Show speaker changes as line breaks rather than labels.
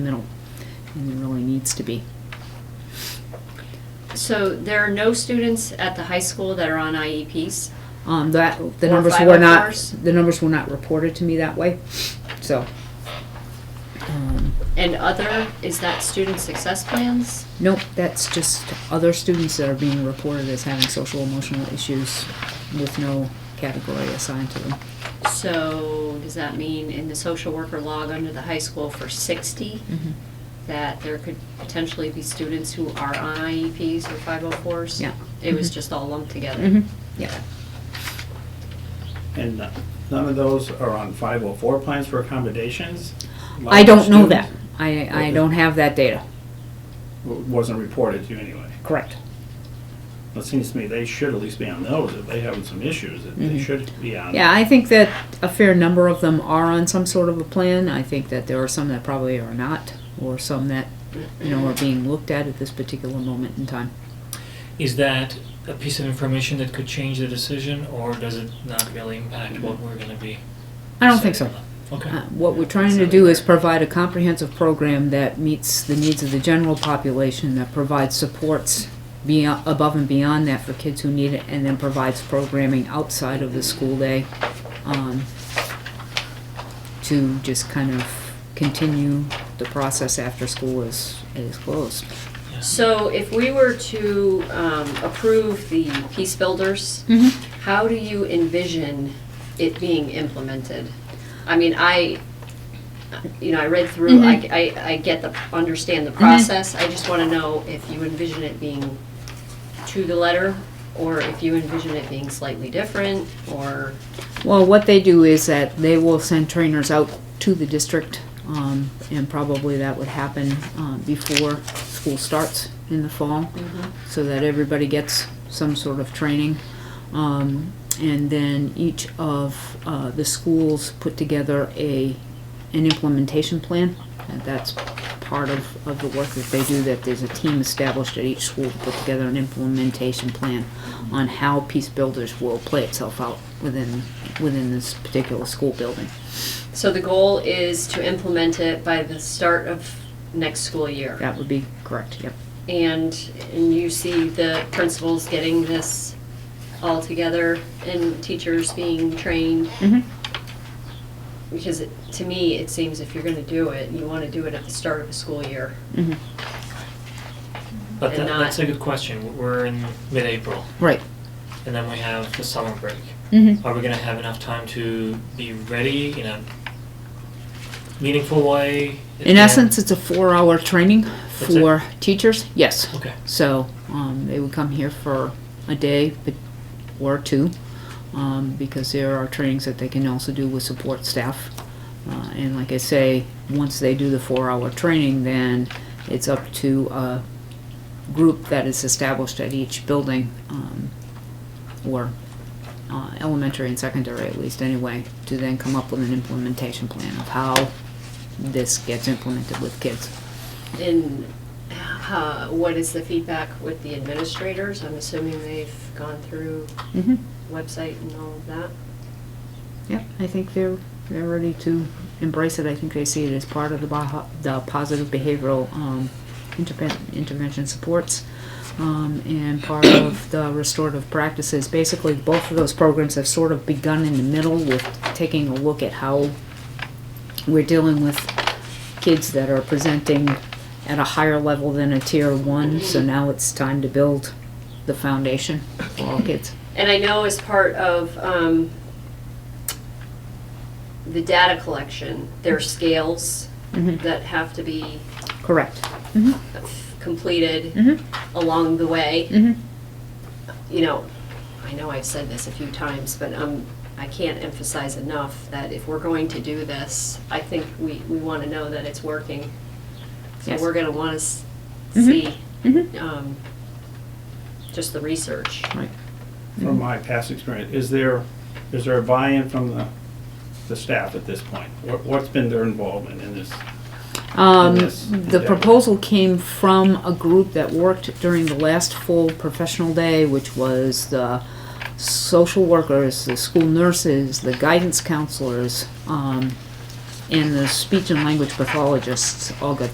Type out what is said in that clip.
middle and there really needs to be.
So there are no students at the high school that are on E IEPs?
Um, that, the
Or
numbers were not,
504s?
the numbers were not reported to me that way, so. um,
And other, is that student success plans?
Nope, that's just other students that are being reported as having social emotional issues with no category assigned to them.
So does that mean in the social worker log under the high school for 60, that there could potentially be students who are on IEPs or 504s?
Yeah.
It was
Mhm.
just all lumped together?
Mhm, Yeah,
And none of those are on 504 plans for accommodations?
I don't know that,
Students?
I, I don't have that data,
W- Wasn't reported to you anyway.
correct.
It seems to me they should at least be on those, if they having some issues, that they
Mhm.
should be on.
Yeah, I think that a fair number of them are on some sort of a plan. I think that there are some that probably are not, or some that, you know, are being looked at at this particular moment in time.
Is that a piece of information that could change the decision, or does it not really impact what we're gonna be?
I don't think so.
deciding on? Okay.
Uh, What we're trying to do is provide a comprehensive program that meets the needs of the general population, that provides supports beyond, above and beyond that for kids who need it, and then provides programming outside of the school day, um, to just kind of continue the process after school is, is closed.
So if we were to um, approve the Peace Builders, How do you envision it being implemented? I mean, I, you know, I read through, I, I- I get the, understand the process. I just want to know if you envision it being to the letter, or if you envision it being slightly different, or,
Well, what they do is that they will send trainers out to the district, um, and probably that would happen, um, before school starts in the fall, so that everybody gets some sort of training. Um, and then each of, uh, the schools put together a, an implementation plan, and that's part of, of the work that they do, that there's a team established at each school to put together an implementation plan on how Peace Builders will play itself out within, within this particular school building.
so the goal is to implement it by the start of next school year.
That would be correct, yep.
And, and you see the principals getting this all together, and teachers being trained
Mm-hmm.
Because it, to me, it seems if you're gonna do it, you wanna do it at the start of the school year.
Mm-hmm.
But that,
And not-
that's a good question. We're in mid-April,
Right.
and then we have the summer break.
Mm-hmm.
Are we gonna have enough time to be ready in a meaningful way? at
In
the
essence, it's a four-hour training
That's it?
for teachers, yes.
end? Okay.
So, um, they would come here for a day but- or two, um, because there are trainings that they can also do with support staff. Uh, and like I say, once they do the four-hour training, then it's up to a group that is established at each building, um, or, uh, elementary and secondary at least anyway, to then come up with an implementation plan of how this gets implemented with kids.
And, uh, what is the feedback with the administrators? I'm assuming they've gone through
Mm-hmm.
website and all of that.
Yep, I think they're, they're ready to embrace it. I think they see it as part of the Baja, the positive behavioral, um, interven- intervention supports, um, and part of the restorative practices. Basically, both of those programs have sort of begun in the middle with taking a look at how we're dealing with kids that are presenting at a higher level than a tier one, so now it's time to build the foundation for all kids.
And I know as part of, um, the data collection, there are scales
Mhm.
that have to be
Correct. Mm-hmm,
completed
mm-hmm,
along the way.
mm-hmm.
you know, I know I've said this a few times, but um, I can't emphasize enough that if we're going to do this, I think we, we want to know that it's working. So
Yes.
we're going to want to
Mhm.
see
Mhm.
um, just the research.
From my past experience, is there, is there a buy-in from the, the staff at this point? What- What's been their involvement in this?
Um,
Yes.
the proposal came from a group that worked during the last full professional day, which was the social workers, the school nurses, the guidance counselors, um, and the speech and language pathologists all got